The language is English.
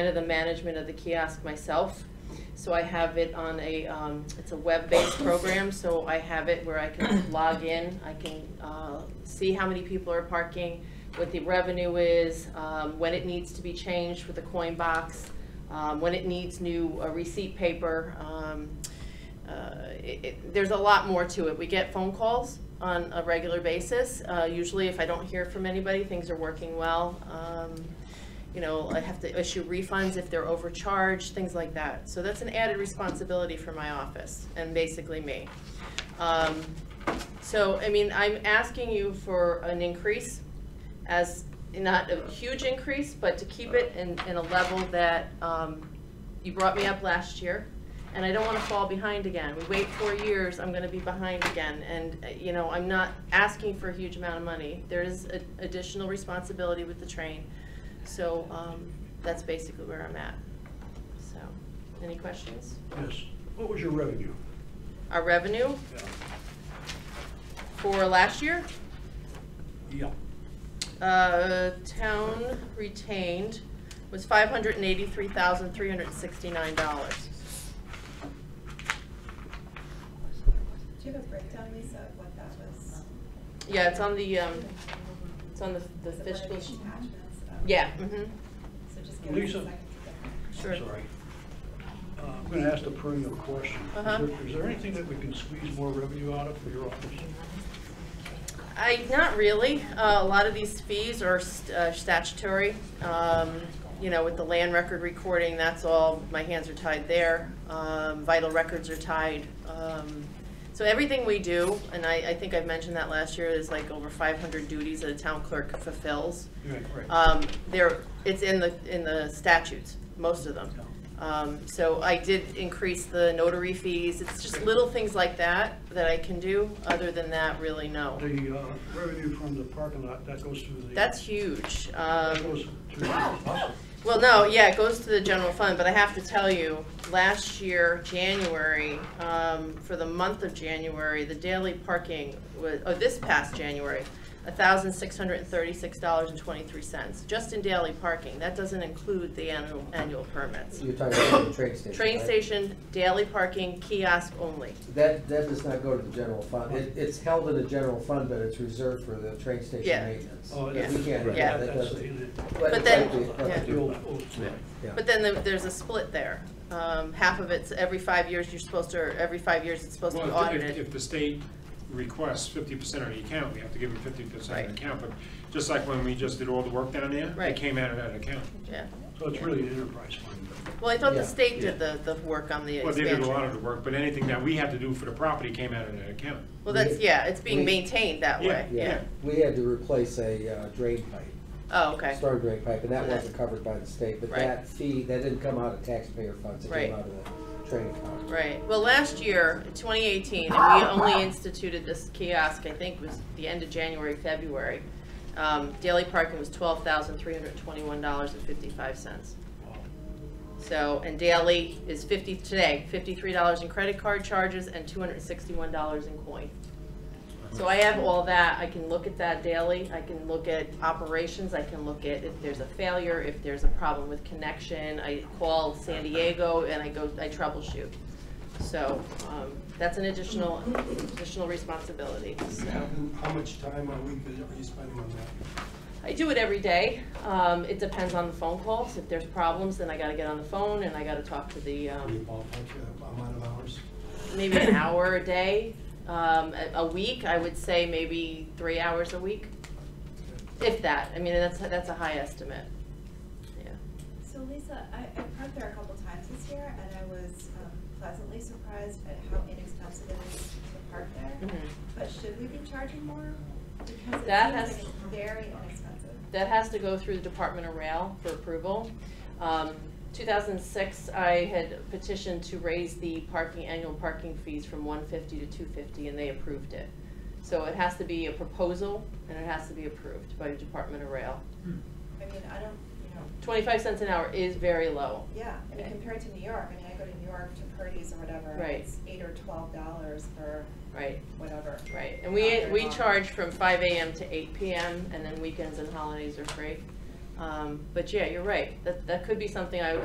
of the management of the kiosk myself. So I have it on a, um, it's a web-based program, so I have it where I can log in, I can, uh, see how many people are parking, what the revenue is, um, when it needs to be changed with the coin box, um, when it needs new uh, receipt paper, um, uh, it- it- there's a lot more to it. We get phone calls on a regular basis. Uh, Usually, if I don't hear from anybody, things are working well. Um, You know, I have to issue refunds if they're overcharged, things like that. So that's an added responsibility for my office and basically me. Um, So, I mean, I'm asking you for an increase as, not a huge increase, but to keep it in, in a level that um, you brought me up last year and I don't want to fall behind again. We wait four years, I'm going to be behind again. And, uh, you know, I'm not asking for a huge amount of money. There is a- additional responsibility with the train. So um, that's basically where I'm at. So, any questions? Yes. What was your revenue? Our revenue for last year, Yeah. uh, town retained was $583,369. Do you have a breakdown, Lisa, of what that was? Yeah, it's on the, um, it's on the the Was it one of fiscal. these attachments? Oh. Yeah, mhm. So just give us a Lisa. second. Sure. Sorry. Uh, I'm going to ask the perennial question. Is Uh-huh. there- Is there anything that we can squeeze more revenue out of for your office? Mm-hmm. I, not really. Uh, A lot of these fees are st- uh, statutory. Um, You know, with the land record recording, that's all, my hands are tied there. Um, Vital records are tied. Um, So everything we do, and I, I think I've mentioned that last year, is like over 500 duties that a town clerk fulfills. Right, right. Um, There, it's in the, in the statutes, most of them. Um, So I did increase the notary fees. It's just little things like that that I can do. Other than that, really, no. The uh, revenue from the parking lot, that goes through the. That's huge. That Um, goes to the us? Well, no, yeah, it goes to the general fund, but I have to tell you, last year, January, um, for the month of January, the daily parking was, oh, this past January, $1,636.23, just in daily parking. That doesn't include the annual, annual permits. You're talking about the train station, Train right? station, daily parking, kiosk only. That, that does not go to the general fund. It, it's held in the general fund, but it's reserved for the train Yeah. station maintenance. Oh, We that's- can't- right, Yeah. that that's doesn't- the- But then- that'd be- that's that'd the be- old- old story. yeah. But then the- there's a split there. Um, Half of it's every five years, you're supposed to, or every five years, it's supposed to be Well, if- if- audited. If the state requests fifty percent of the account, we have to give them fifty percent Right. of the account, but just like when we just did all the work down there, Right. it came out of that account. Yeah. So it's really an enterprise fund. Well, I thought Yeah. the state did the, the work on the Well, they did expansion. a lot of the work, but anything that we had to do for the property came out of that account. Well, that's, yeah, it's being We- maintained that way, yeah. Yeah. We had to replace a uh, drain pipe, Oh, okay, storm drain pipe, and that So that- wasn't covered by the state. But Right. that fee, that didn't come out of taxpayer funds, it Right. came out of the train account. right. Well, last year, 2018, and we only instituted this kiosk, I think, was the end of January, February. Um, daily parking was $12,321.55. So, and daily is 50, today, $53 in credit card charges and $261 in coin. So I have all that, I can look at that daily, I can look at operations, I can look at if there's a failure, if there's a problem with connection, I call San Diego and I go, I troubleshoot. So, um, that's an additional, additional responsibility, so. How much time a week is- are you spending on that? I do it every day. Um, it depends on the phone calls. If there's problems, then I gotta get on the phone and I gotta talk to the, Any um, ballpark uh, amount of hours? maybe an hour a day. Um, a, a week, I would say maybe three hours a week, if that. I mean, that's, that's a high estimate. Yeah. So Lisa, I, I parked there a couple times this year and I was um, pleasantly surprised at how inexpensive it is to park there. Mhm. But should we be charging more? Because it seems That like has- it's very inexpensive. That has to go through the Department of Rail for approval. Um, 2006, I had petitioned to raise the parking, annual parking fees from 150 to 250, and they approved it. So it has to be a proposal, and it has to be approved by the Department of Rail. I mean, I don't, you know, 25 cents an hour is very low. yeah, I mean, Okay. compared to New York, I mean, I go to New York to Purdy's or whatever. and Right. It's eight or twelve dollars for Right, whatever. right. And we, we Not very long. charge from 5 AM to 8 PM, and then weekends and holidays are free. Um, But yeah, you're right, that, that could be something I